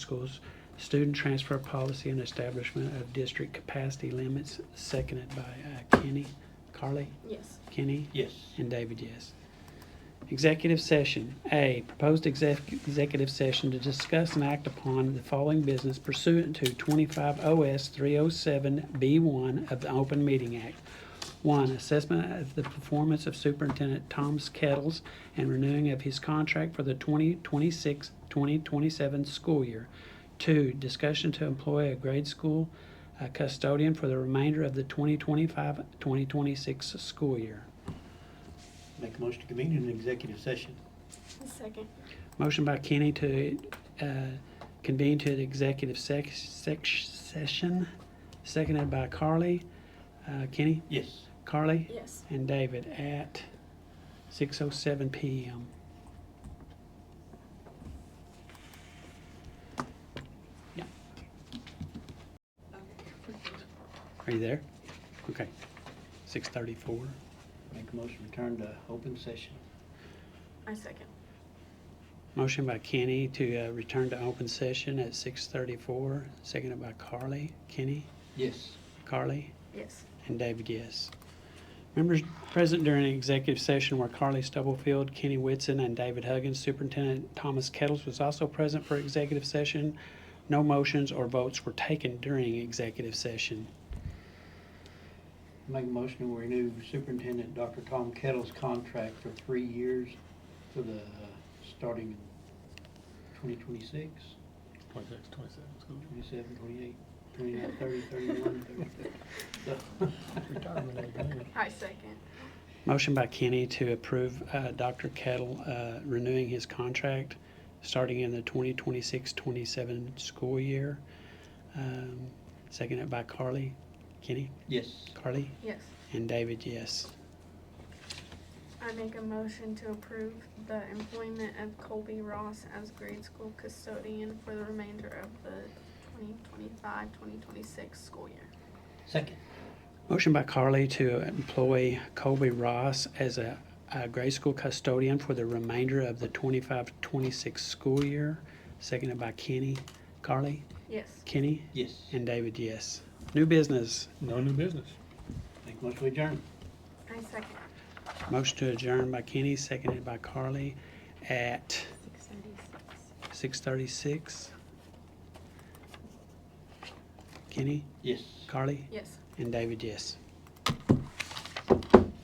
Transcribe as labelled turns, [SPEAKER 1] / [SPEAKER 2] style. [SPEAKER 1] Schools Student Transfer Policy and Establishment of District Capacity Limits, seconded by uh, Kenny, Carly,
[SPEAKER 2] Yes.
[SPEAKER 1] Kenny,
[SPEAKER 3] Yes.
[SPEAKER 1] and David, yes. Executive session. A, proposed exec- executive session to discuss and act upon the following business pursuant to 25 OS 307B1 of the Open Meeting Act. One, assessment of the performance of Superintendent Tom Kettles and renewing of his contract for the 2026-2027 school year. Two, discussion to employ a grade school uh, custodian for the remainder of the 2025-2026 school year.
[SPEAKER 3] Make a motion to convene an executive session.
[SPEAKER 2] Second.
[SPEAKER 1] Motion by Kenny to uh, convene to the executive sec- sec- session, seconded by Carly. Uh, Kenny,
[SPEAKER 3] Yes.
[SPEAKER 1] Carly,
[SPEAKER 2] Yes.
[SPEAKER 1] and David at 6:07 PM. Yeah. Are you there? Okay. 6:34.
[SPEAKER 3] Make a motion to return to open session.
[SPEAKER 2] I second.
[SPEAKER 1] Motion by Kenny to uh, return to open session at 6:34, seconded by Carly. Kenny,
[SPEAKER 3] Yes.
[SPEAKER 1] Carly,
[SPEAKER 2] Yes.
[SPEAKER 1] and David, yes. Members present during executive session were Carly Stubblefield, Kenny Whitson, and David Huggins. Superintendent Thomas Kettles was also present for executive session. No motions or votes were taken during executive session.
[SPEAKER 3] Make a motion to renew Superintendent Dr. Tom Kettle's contract for three years for the, uh, starting in 2026,
[SPEAKER 4] Twenty-six, twenty-seven, school
[SPEAKER 3] 27, 28, 29, 30, 31, 32.
[SPEAKER 4] retirement age, maybe.
[SPEAKER 2] I second.
[SPEAKER 1] Motion by Kenny to approve uh, Dr. Kettle uh, renewing his contract starting in the 2026-27 school year. Um, Seconded by Carly, Kenny,
[SPEAKER 3] Yes.
[SPEAKER 1] Carly,
[SPEAKER 2] Yes.
[SPEAKER 1] and David, yes.
[SPEAKER 2] I make a motion to approve the employment of Colby Ross as grade school custodian for the remainder of the 2025-2026 school year.
[SPEAKER 3] Second.
[SPEAKER 1] Motion by Carly to employ Colby Ross as a a grade school custodian for the remainder of the 25-26 school year. Seconded by Kenny, Carly,
[SPEAKER 2] Yes.
[SPEAKER 1] Kenny,
[SPEAKER 3] Yes.
[SPEAKER 1] and David, yes. New business.
[SPEAKER 4] No new business.
[SPEAKER 3] Make a motion to adjourn.
[SPEAKER 2] I second.
[SPEAKER 1] Motion to adjourn by Kenny, seconded by Carly at six thirty-six. Kenny,
[SPEAKER 3] Yes.
[SPEAKER 1] Carly,
[SPEAKER 2] Yes.
[SPEAKER 1] and David, yes.